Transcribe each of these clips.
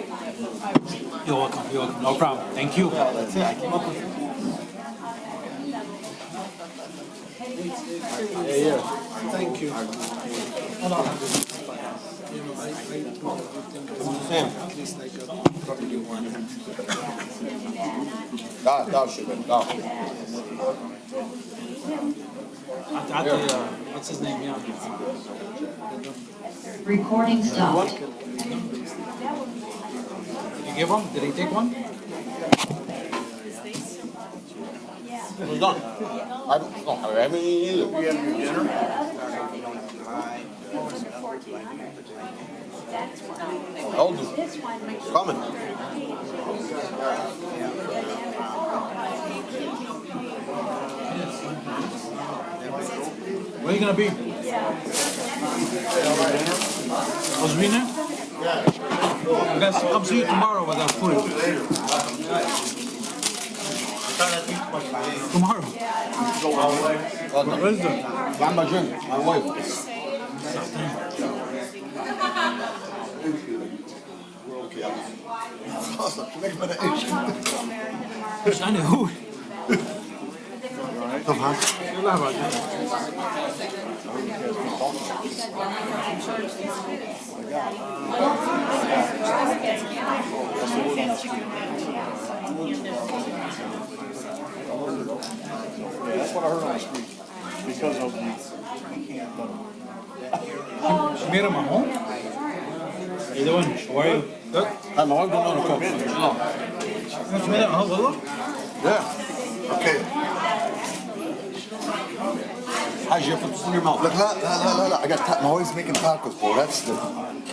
You're welcome, you're welcome, no problem, thank you. That's it, I came up with it. Thank you. Da, da, sugar, da. At, at the, uh, what's his name, yeah. Recording stopped. Did you give one? Did he take one? We're done. I don't, don't have any either. We have your dinner? I'll do. Coming. Where you gonna be? Osmina? I guess I'll see you tomorrow with that food. Tomorrow? Well done. Wednesday? Yeah, my drink, my wife. Shani, who? You're lying about that. Yeah, that's what I heard on the street, because of the, you can't, let 'em. Mira Mahon? How you doing? How are you? Good. Hey, my wife don't know the cook. She's not. Mira Mahon, والله. Yeah. Okay. How's your foot in your Look, mouth? لا لا لا لا لا I got ta- I'm always making tacos, bro. That's the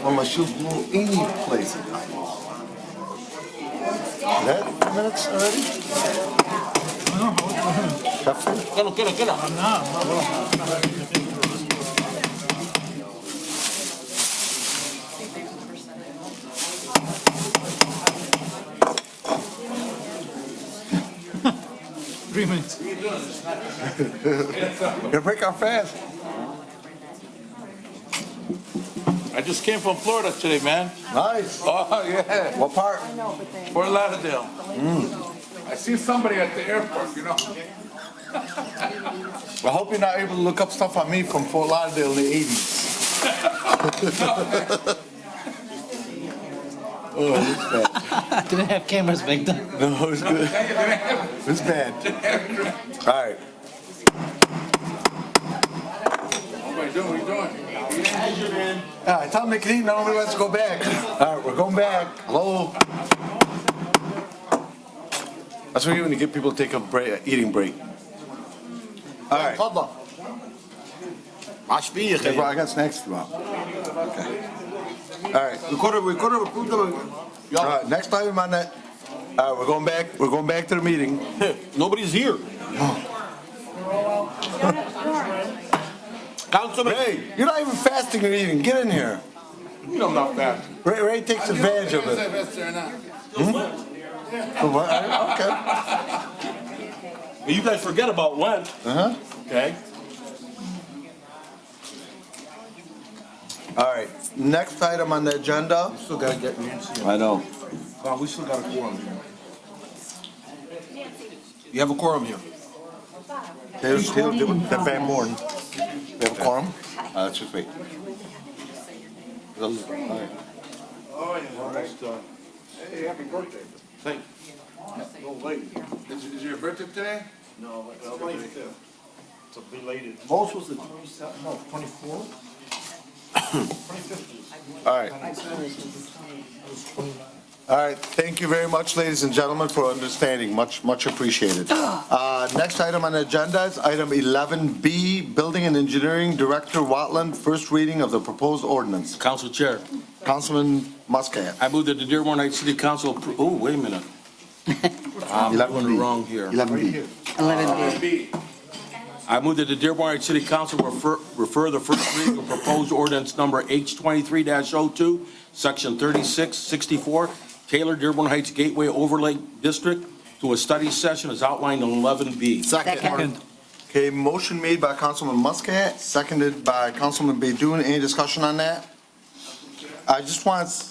والله she'll blow any place. That minutes already? No, Oh, no, Cafe? Get it, get it, get it. no, no. Three minutes. You break our fast. I just came from Florida today, man. Nice. Oh, yeah, What part? Fort Lauderdale. I see somebody at the airport, you know? I hope you're not able to look up stuff on me from Fort Lauderdale in the 80s. oh, it's bad. Didn't have cameras back then. No, it's good. It's bad. All right. What am I doing, what are you doing? All right, tell me, Keith, nobody wants to go back. All right, we're going back. Hello? That's what you when you get people to take a break, eating break. All right. Papa. I speak. Hey, bro, I got snacks for you. Okay. All right. We could have, we could have approved them. All right, next item on that, all right, we're going back, we're going back to the meeting. Nobody's here. Councilman. Ray, you're not even fasting or eating. Get in here. You don't know that. Ray, Ray takes advantage of it. Oh, what? Okay. You guys forget about Lent, Uh-huh. okay? All right, next item on the agenda. Still gotta get Nancy. I know. Well, we still got a quorum here. You have a quorum here. They'll, they'll do it, they're Van Born. They have a quorum? Uh, let's just wait. Those- all right. almost, uh, hey, happy birthday. Thank you. Little late. Is, is your birthday today? No, it's belated. It's a belated. Most was the twenty-seven, no, twenty-four? All right. All right, thank you very much, ladies and gentlemen, for understanding, much, much appreciated. Uh, Next item on the agenda is item 11B, Building and Engineering Director Watland, first reading of the proposed ordinance. Council Chair, Councilman Muscat. I move that the Dearborn Heights City Council, appro- oh, wait a minute. I'm doing it wrong here. 11B. I move that the Dearborn Heights City Council refer, refer the first reading of proposed ordinance number H twenty-three 2 section thirty-six sixty-four, Taylor Dearborn Heights Gateway Overlay District to a study session as outlined in eleven B. Second. Okay, motion made by Councilman Muscat, seconded by Councilman Baidoon. Any discussion on that? I just want to